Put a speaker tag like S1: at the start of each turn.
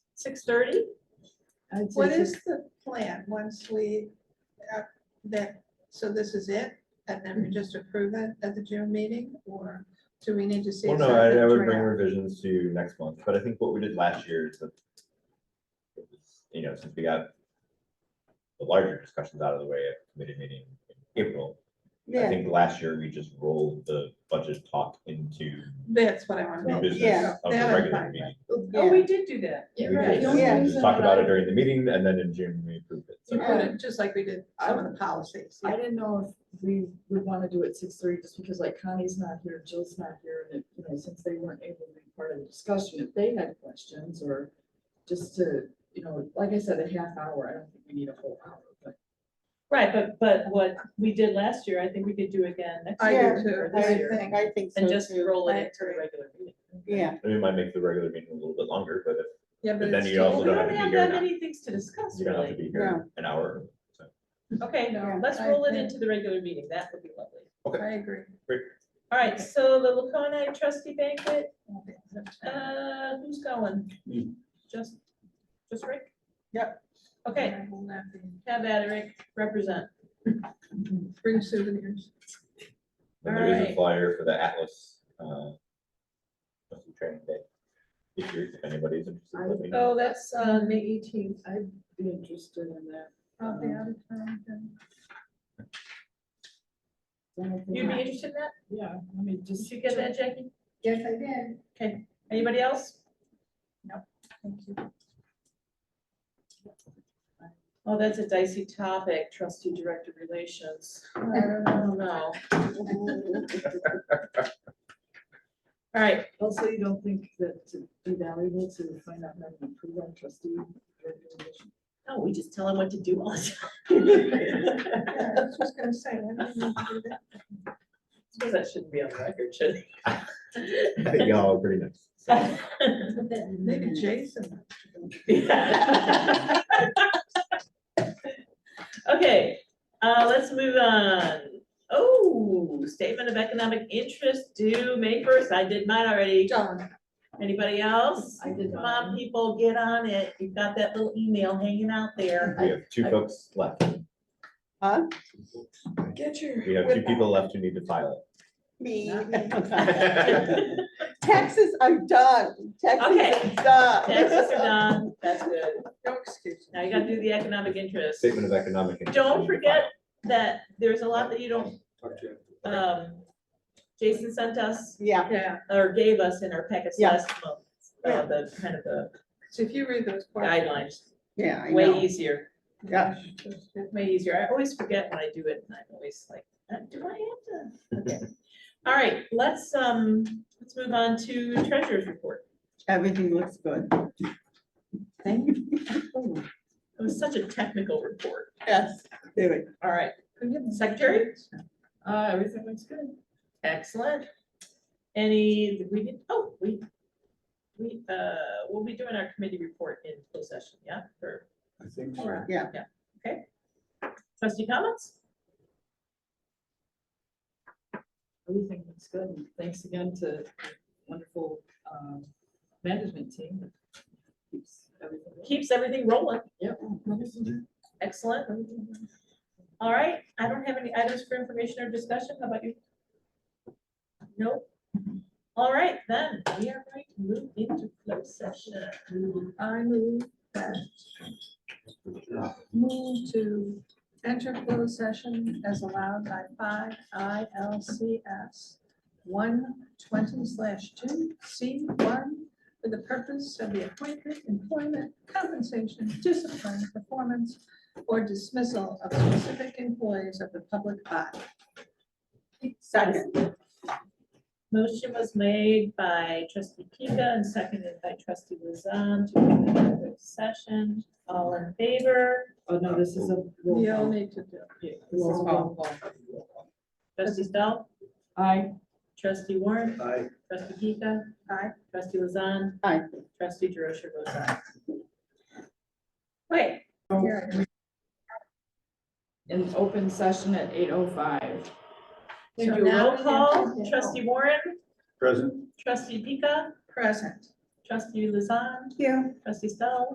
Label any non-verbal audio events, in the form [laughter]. S1: six thirty?
S2: I'd say
S3: What
S2: six-
S3: is the plan once we, uh, that, so this is it? And then we just approve it at the June meeting or do we need to see?
S4: Well,
S3: a
S4: no, I, I
S3: separate
S4: would bring
S3: draft?
S4: revisions to you next month, but I think what we did last year is that. it was, You know, since we got. The larger discussions out of the way at committee meeting in April, I
S2: Yeah,
S4: think last year we just rolled the budget talk into
S3: That's what I want to
S4: new
S3: know.
S4: business of the
S3: That I'm
S4: regular
S3: fine with.
S4: meeting.
S1: Oh, we did do that.
S4: We
S1: You're right.
S4: did,
S1: The
S4: and
S1: only
S2: Yeah.
S4: then we
S1: reason
S4: just talked
S1: that
S4: about
S1: I-
S4: it during the meeting and then in June we approved it.
S3: You
S4: So
S3: put it Just like we did some of the policies.
S2: I didn't know if we would want to do it six thirty, just because like Connie's not here, Jill's not here, and, it- you know, since they weren't able to be part of the discussion, if they had questions or just to, you know, like I said, a half hour, I don't think we need a whole hour, but.
S1: Right, but, but what we did last year, I think we could do again next
S3: I
S1: year
S3: do too.
S1: or
S3: I
S1: this year,
S3: think-
S5: I think so
S1: and just
S5: too.
S1: roll it
S3: I
S1: into the
S3: agree.
S1: regular meeting.
S5: Yeah,
S4: I mean, it might make the regular meeting a little bit longer, but if
S3: Yeah, but
S4: But then
S3: it's
S4: you
S3: still-
S4: also
S1: We
S4: don't have
S1: don't
S4: to be
S1: have
S4: here
S1: that
S4: now.
S1: many things to discuss
S4: you don't have to
S1: really.
S4: be
S5: Yeah.
S4: here an hour. so.
S1: Okay,
S3: No,
S1: let's
S3: I
S1: roll it
S3: think-
S1: into the regular meeting. That would be lovely.
S3: I agree.
S1: All right, so the Laconi trustee banquet,
S3: Okay.
S1: uh, who's going?
S4: You.
S1: Just, just Rick?
S3: Yep.
S1: Okay,
S3: I will not be-
S1: have at it, Rick, represent.
S3: Bring souvenirs.
S4: And there is a
S1: Alright.
S4: flyer for the Atlas, uh. trustee Training day. If you're, if anybody's interested, let me know.
S1: Oh, that's, uh, May eighteenth.
S2: I'd be interested in that.
S3: I'll be out of town then.
S2: I don't think-
S1: You'd be interested in that?
S2: Yeah, let me just.
S1: Did you get that, Jackie?
S3: Yes, I did.
S1: Okay, anybody else?
S3: Thank you.
S1: Oh, that's a dicey topic, trustee director relations.
S3: I don't
S1: I
S3: know.
S1: don't know.
S5: [laughs]
S1: All right,
S2: Also, you don't think that it'd be valuable to find out how to improve on trustee recommendation?
S1: oh, we just tell him what to do all the time.
S3: Yeah, I was just gonna say, why do we need to do that?
S1: Suppose that shouldn't be on the record, [laughs] should
S4: I think [laughs] y'all are pretty nice.
S1: it?
S3: Maybe Jason.
S1: Okay, uh, let's move on. Oh, statement of economic interest due May first. I did mine already.
S3: John.
S1: Anybody else?
S2: I did
S1: Come
S2: mine.
S1: on, people, get on it. You've got that little email hanging out there. [laughs]
S4: We have two
S2: I-
S4: folks left.
S5: Huh?
S3: Get your.
S4: We have two people left who need to file
S5: me.
S2: Not
S4: it.
S1: [laughs]
S5: Taxes are done,
S1: Okay.
S5: taxes are done.
S1: Taxes are done. That's good.
S3: No excuses.
S1: Now you gotta do the economic interest.
S4: Statement of economic. interest we
S1: Don't
S4: need to
S1: forget-
S4: file.
S1: That there's a lot that you don't, um, Jason sent us
S5: Yeah,
S3: Yeah,
S1: or gave us in our packets
S5: Yeah.
S1: last month. Uh, the kind of the
S3: so if you read those.
S1: guidelines,
S5: yeah, I
S1: way
S5: know.
S1: easier,
S5: Yeah.
S1: way easier. I always forget when I do it and I'm always like, uh, do I have to? Okay. All right, let's, um, let's move on to treasurer's report.
S5: Everything looks good. Thank [laughs] you.
S1: It was such a technical report.
S5: Yes, do it.
S1: All right, secretary?
S2: Uh, everything looks good.
S1: Excellent. Any, we did, oh, we, we, uh, we'll be doing our committee report in closed session, yeah, for
S6: I think so.
S3: Alright.
S1: trustee comments?
S2: Everything looks good. and Thanks again to the wonderful um, management team. that keeps everything going.
S1: Keeps everything rolling.
S2: Yep.
S1: Excellent. All right, I don't have any items for information or discussion. How about you? Nope. All right, then, we are going to move into closed session.
S3: I move that. Move to enter closed session as allowed by five ILCS one twenty slash two C one for the purpose of the appointment, employment, compensation, discipline, performance, or dismissal of specific employees of the public body.
S5: Second,
S1: Motion was made by trustee Pika and seconded by trustee Lizan to move into closed session. All in favor?
S2: Oh, no, this is a. roll
S3: You all
S2: call.
S3: need to do.
S2: Yeah, this is a
S5: roll
S2: roll call.
S1: Trustee Stahl?
S2: Aye.
S1: Trustee Warren?
S6: Aye.
S1: Trustee Pika?
S3: Aye.
S1: Trustee Lizan?
S5: Aye.
S1: Trustee Derosha votes aye. Wait,
S3: Here it is.
S2: An open session at eight oh five.
S1: We
S3: So
S1: do
S3: now
S1: roll
S3: we have
S1: call,
S3: to-
S1: trustee Warren,
S6: Present?
S1: trustee Pika,
S3: Present.
S1: trustee Lizan,
S5: you.
S1: trustee Stoll.